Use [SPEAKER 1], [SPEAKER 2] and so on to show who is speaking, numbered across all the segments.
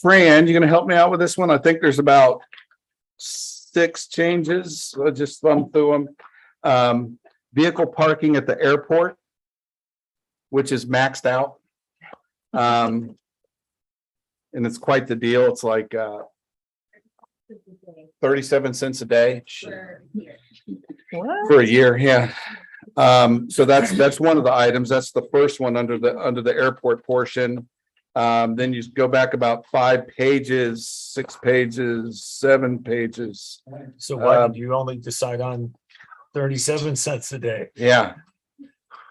[SPEAKER 1] Fran, you gonna help me out with this one? I think there's about six changes. I'll just thumb through them. Um, vehicle parking at the airport, which is maxed out. Um, and it's quite the deal. It's like, uh, thirty-seven cents a day
[SPEAKER 2] What?
[SPEAKER 1] for a year, yeah. Um, so that's, that's one of the items. That's the first one under the, under the airport portion. Um, then you go back about five pages, six pages, seven pages.
[SPEAKER 3] So why
[SPEAKER 1] Um,
[SPEAKER 3] did you only decide on thirty-seven cents a day?
[SPEAKER 1] Yeah,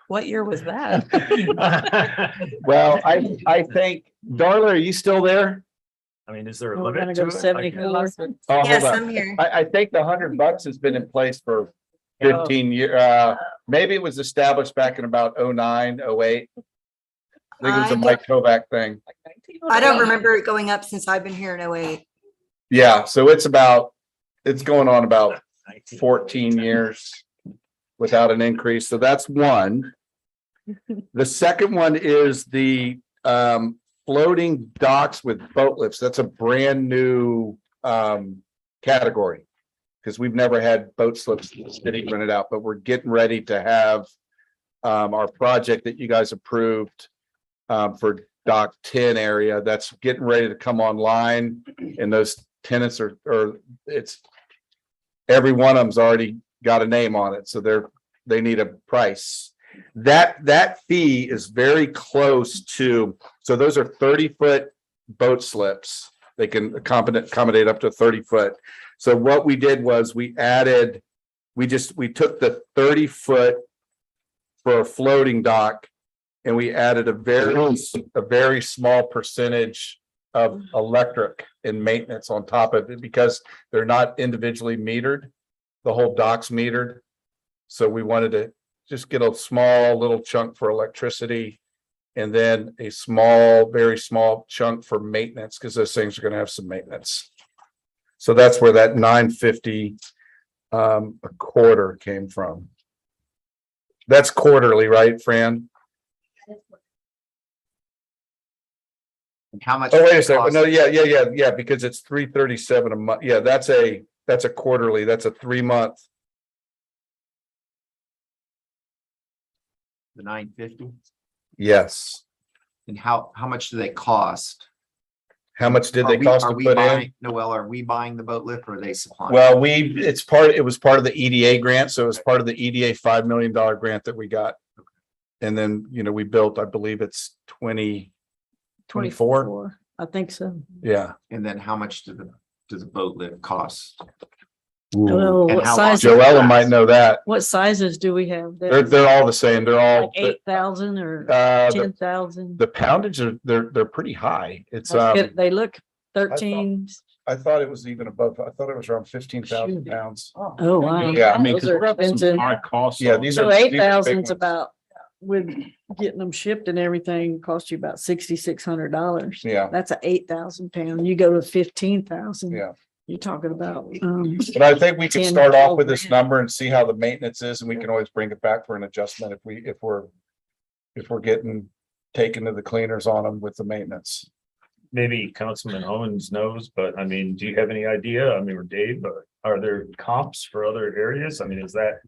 [SPEAKER 2] What year was that?
[SPEAKER 3] I
[SPEAKER 1] well, I, I think, Darla, are you still there?
[SPEAKER 3] mean, is there a
[SPEAKER 2] We're gonna
[SPEAKER 3] limit
[SPEAKER 2] go
[SPEAKER 3] to it? Like,
[SPEAKER 2] 74.
[SPEAKER 1] Oh, hold
[SPEAKER 4] Yes,
[SPEAKER 1] on.
[SPEAKER 4] I'm here.
[SPEAKER 1] I, I think the hundred bucks has been in place for
[SPEAKER 4] Oh.
[SPEAKER 1] fifteen year, uh, maybe it was established back in about 09, 08. I think it was a
[SPEAKER 4] I
[SPEAKER 1] Mike Kovac thing.
[SPEAKER 4] I don't remember it going up since I've been here in oh eight.
[SPEAKER 1] Yeah, so it's about, it's going on about
[SPEAKER 3] 19.
[SPEAKER 1] fourteen years without an increase, so that's one. The second one is the um floating docks with boat lifts. That's a brand new um category. Because we've never had boat slips sitting rented out, but we're getting ready to have um our project that you guys approved um for dock ten area, that's getting ready to come online and those tenants are, or it's every one of them's already got a name on it, so they're, they need a price. That, that fee is very close to, so those are thirty foot boat slips. They can accommodate, accommodate up to thirty foot. So what we did was we added, we just, we took the thirty foot for a floating dock and we added a very, a very small percentage of electric and maintenance on top of it because they're not individually metered. The whole dock's metered. So we wanted to just get a small little chunk for electricity. And then a small, very small chunk for maintenance, because those things are gonna have some maintenance. So that's where that nine fifty um a quarter came from. That's quarterly, right, Fran?
[SPEAKER 5] How much?
[SPEAKER 1] Oh, wait a
[SPEAKER 5] does it
[SPEAKER 1] second.
[SPEAKER 5] cost?
[SPEAKER 1] No, yeah, yeah, yeah, yeah, because it's three thirty-seven a month. Yeah, that's a, that's a quarterly, that's a three-month.
[SPEAKER 5] The nine fifty?
[SPEAKER 1] Yes.
[SPEAKER 5] And how, how much do they cost?
[SPEAKER 1] How much did
[SPEAKER 5] Are
[SPEAKER 1] they
[SPEAKER 5] we-
[SPEAKER 1] cost
[SPEAKER 5] are
[SPEAKER 1] to
[SPEAKER 5] we
[SPEAKER 1] put in?
[SPEAKER 5] buying- Noel, are we buying the boat lift or are they supplying?
[SPEAKER 1] Well, we, it's part, it was part of the EDA grant, so it was part of the EDA five million dollar grant that we got. And then, you know, we built, I believe it's twenty, twenty-four,
[SPEAKER 2] I think so.
[SPEAKER 1] yeah.
[SPEAKER 5] And then how much do the, does the boat lift cost?
[SPEAKER 2] I don't know,
[SPEAKER 5] And
[SPEAKER 2] what
[SPEAKER 5] how
[SPEAKER 2] size,
[SPEAKER 1] Joella might know that.
[SPEAKER 2] what sizes do we have?
[SPEAKER 1] They're,
[SPEAKER 2] there?
[SPEAKER 1] they're all the same. They're all,
[SPEAKER 2] Like eight thousand or
[SPEAKER 1] uh, the,
[SPEAKER 2] ten thousand?
[SPEAKER 1] the poundage are, they're, they're pretty high. It's, um,
[SPEAKER 2] They look thirteen.
[SPEAKER 1] I thought it was even above, I thought it was around fifteen thousand
[SPEAKER 2] Shoot.
[SPEAKER 1] pounds.
[SPEAKER 2] Oh, wow.
[SPEAKER 1] Yeah, I
[SPEAKER 2] mean, 'cause Those are we're up some expensive. high
[SPEAKER 3] costs.
[SPEAKER 1] Yeah, these are.
[SPEAKER 2] So
[SPEAKER 1] these are
[SPEAKER 2] eight
[SPEAKER 1] big
[SPEAKER 2] thousand's
[SPEAKER 1] ones.
[SPEAKER 2] about, with getting them shipped and everything, cost you about sixty-six hundred dollars.
[SPEAKER 1] Yeah,
[SPEAKER 2] That's a eight thousand pound. You go to fifteen thousand.
[SPEAKER 1] yeah.
[SPEAKER 2] You're talking about, um,
[SPEAKER 1] But I think we could
[SPEAKER 2] 10,
[SPEAKER 1] start off
[SPEAKER 2] 12
[SPEAKER 1] with this
[SPEAKER 2] grand.
[SPEAKER 1] number and see how the maintenance is, and we can always bring it back for an adjustment if we, if we're. If we're getting taken to the cleaners on them with the maintenance.
[SPEAKER 3] Maybe Councilman Owens knows, but I mean, do you have any idea? I mean, or Dave, but are there comps for other areas? I mean, is that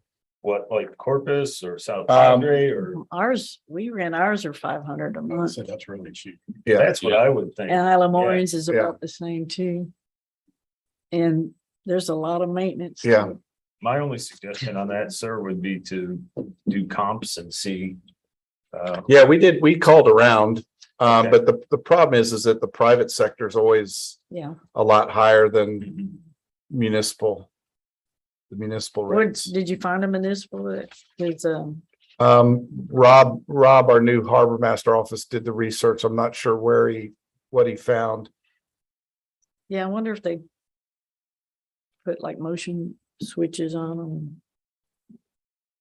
[SPEAKER 3] what, like Corpus or South
[SPEAKER 1] Um,
[SPEAKER 3] Padre or?
[SPEAKER 2] ours, we ran ours are five hundred a month.
[SPEAKER 3] that's really cheap.
[SPEAKER 1] Yeah.
[SPEAKER 3] That's what I would think.
[SPEAKER 2] And Isla Moreans is
[SPEAKER 1] yeah.
[SPEAKER 2] about the same too. And there's a lot of maintenance.
[SPEAKER 1] Yeah.
[SPEAKER 2] too.
[SPEAKER 3] My only suggestion on that, sir, would be to do comps and see. Uh,
[SPEAKER 1] Yeah, we did, we called around, um,
[SPEAKER 3] Okay.
[SPEAKER 1] but the, the problem is, is that the private sector is always
[SPEAKER 2] Yeah,
[SPEAKER 1] a lot higher than municipal. The municipal
[SPEAKER 2] where,
[SPEAKER 1] rates.
[SPEAKER 2] did you find a municipal that is, um,
[SPEAKER 1] Um, Rob, Rob, our new harbor master office did the research. I'm not sure where he, what he found.
[SPEAKER 2] yeah, I wonder if they put like motion switches on them.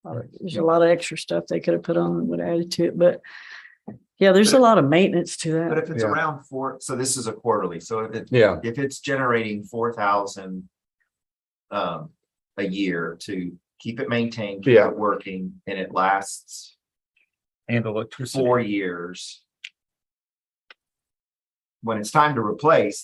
[SPEAKER 2] Or There's a lot of extra stuff they could have put on and would add to it, but yeah, there's a lot of maintenance to
[SPEAKER 5] But
[SPEAKER 2] that.
[SPEAKER 5] if it's
[SPEAKER 1] Yeah.
[SPEAKER 5] around four, so this is a quarterly, so if it,
[SPEAKER 1] Yeah,
[SPEAKER 5] if it's generating four thousand um, a year to keep it maintained, keep
[SPEAKER 1] Yeah.
[SPEAKER 5] it working, and it lasts
[SPEAKER 3] And electricity.
[SPEAKER 5] four years. when it's time to replace,